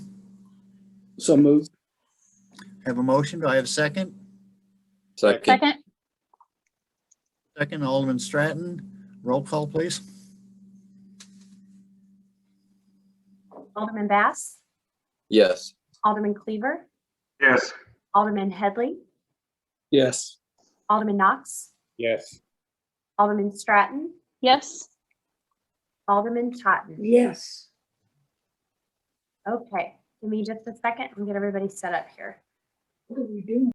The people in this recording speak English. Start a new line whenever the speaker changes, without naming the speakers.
So moved.
I have a motion. Do I have a second?
Second,
Second,
Second, Alderman Stratton. Roll call, please.
Alderman Bass,
yes.
Alderman Cleaver,
yes,
Alderman Headley,
Yes.
Alderman Knox,
yes,
Alderman Stratton,
yes,
Alderman Totten.
yes,
Okay, give me just a second and get everybody set up here.
what are we doing?